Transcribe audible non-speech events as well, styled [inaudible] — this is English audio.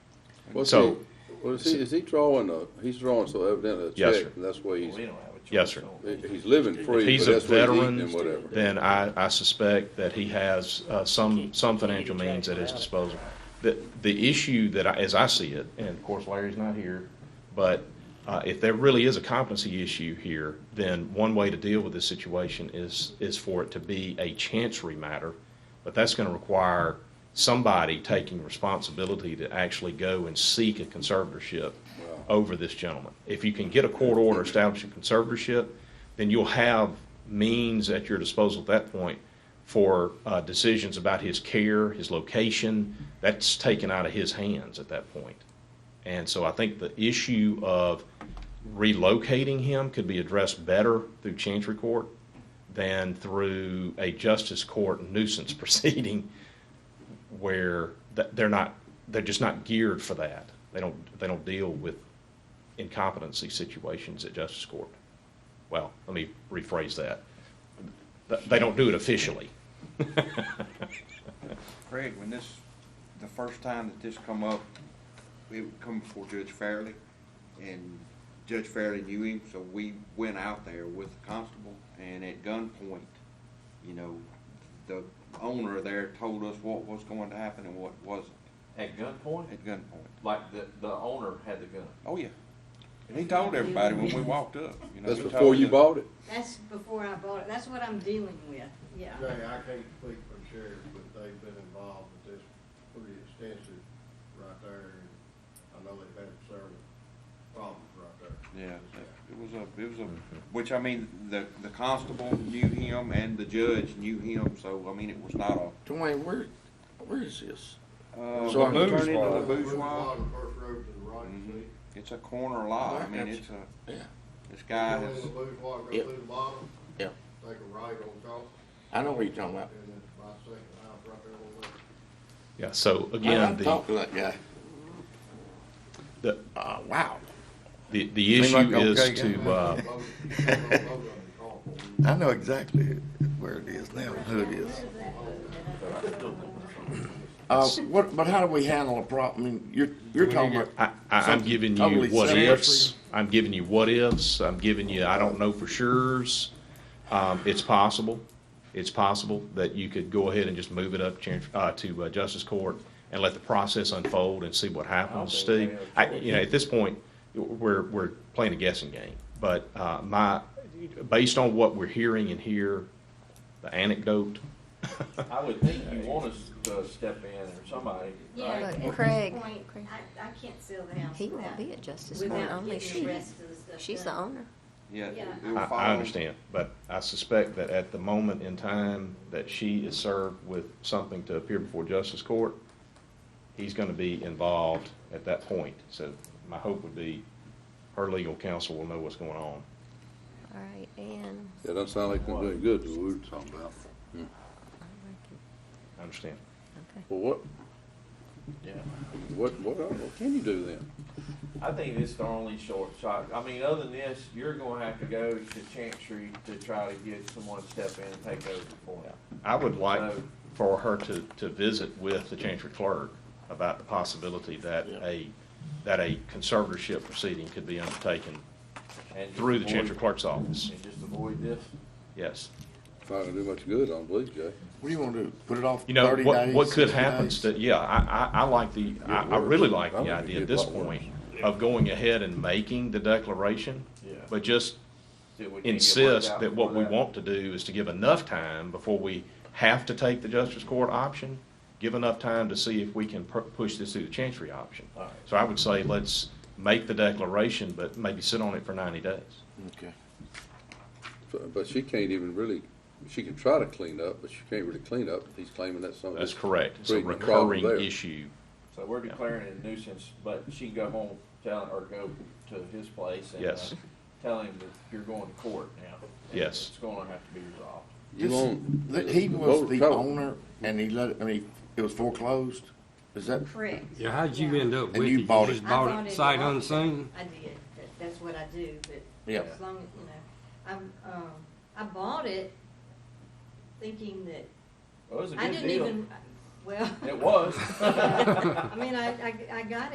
Well, is So- he- Well, is he, is he drawing a, he's drawing so evidently a Yes, check, sir. and that's why he's, We don't have a choice. Yes, sir. on it. he- he's living If free, he's but a that's what he's eating veteran, and whatever. then I, I suspect that he has uh, some, some financial means at his disposal. The, the issue that, I- as I see it, and of course Larry's not here, but uh, if there really is a competency issue here, then one way to deal with this situation is, is for it to be a chancery matter, but that's going to require somebody taking responsibility to actually go and seek a conservatorship over this gentleman. If you can get a court order establishing conservatorship, then you'll have means at your disposal at that point for uh, decisions about his care, his location. That's taken out of his hands at that point. And so I think the issue of relocating him could be addressed better through Chancery Court than through a justice court nuisance [laughs] proceeding where th- they're not, they're just not geared for that. They don't, they don't deal with incompetency situations at justice court. Well, let me rephrase that. Th- They don't do it officially. [laughs] Craig, when this, the first time that this come up, it would come before Judge Fairley, and Judge Fairley knew him, so we went out there with the constable, and at gunpoint, you know, the owner there told us what was going to happen and what wasn't, At gunpoint, at gunpoint. like the, the owner had the gun. Oh, yeah. And he told everybody when we walked up, you know. That's he told before you us. bought it? That's before I bought it, that's what I'm dealing with, yeah. Jay, I can't speak for the sheriff, but they've been involved with this pretty extensive right there. and I know they've had several problems right there. Yeah, it was a, it was a, Mm-hmm. which I mean, the, the constable knew him and the judge knew him, so I mean, it was not a. Dwayne, where, where is this? Uh, So when you turn into bourgeois. the bourgeois, The first road to the right, Mhm. Mm-hmm. see? it's a corner lot, I mean, Perhaps. it's a, Yeah, this guy Go in has, the bourgeois, go Yep. through the bottom, yeah. take a right on top, I know what you're talking and about. then my second house right there on the left. Yeah, so I again, the, talked to that guy. the, Uh, wow. the the Seem like issue is okay, to, uh, Load it, load it, load it on the car. I know exactly where it is now, who it is. Uh, what, but how do we handle a problem? I mean, you're, you're talking about. I, I- I'm something giving you totally what separate. ifs. I'm giving you what ifs. I'm giving you, I don't know for sures. Um, it's possible, it's possible that you could go ahead and just move it up chan- uh, to uh, Justice Court and let the process unfold and see what happens, I don't think Steve. they have I, you know, at this point, we're, we're playing a guessing game. But, uh, my, based on what we're hearing and here, the anecdote, I would think you want us to step in or somebody, Yeah, right? at this Craig- point, Craig. I, I can't sell the house. He won't without- be at Justice Court, Without only getting she, the rest of the stuff she's the done. owner. yeah. it- Yeah. it I, will follow- I understand, but I suspect that at the moment in time that she is served with something to appear before justice court, he's gonna be involved at that point. So my hope would be her legal counsel will know what's going on. All right, and That doesn't sound like they're doing good, what we were talking about. I understand. okay. Well, what? What, what, are- what can you do then? I think this is the only short shot. I mean, other than this, you're gonna have to go to Chancery to try to get someone to step in and take over for him. I would like for her to, to visit with the chancery clerk about the possibility that a, that a conservatorship proceeding could be undertaken And just through the avoid- chancery clerk's office. And just avoid this. Yes. It's Not gonna do much good, I don't believe, Jay. What do you want to do? Put it off You know, thirty days? what, what could 60 happen, days? st- yeah, I, I, I like the, I, I worse. really like I the think idea it'd at get this a lot worse. point of going ahead and making the declaration, Yeah. but just See if we can get it worked insist out that what we before that. want to do is to give enough time before we have to take the justice court option, give enough time to see if we can pu- push this through the chancery option. All right. So I would say let's make the declaration, but maybe sit on it for ninety days. Okay. So- But she can't even really, she can try to clean up, but she can't really clean up, he's claiming that's something. That's correct. It's a creating a problem recurring there. issue. So we're declaring it a nuisance, but she can go home, tell, or go to his place and. uh, Yes. Tell him that you're going to court now. and Yes. It's gonna have to be resolved. You This- won't- that He was Motor the trouble. owner and he let, it- I mean, it was foreclosed? Is that? Correct. Yeah, how'd you end up And with it? you bought it. just I bought at it the sight auction. unseen? I did, that, that's what I do, but Yeah. as long as, you know, I'm, um, I bought it thinking that, Well, it was a I good didn't deal. [laughs] [laughs] even, well, It was. I mean, I, I, I got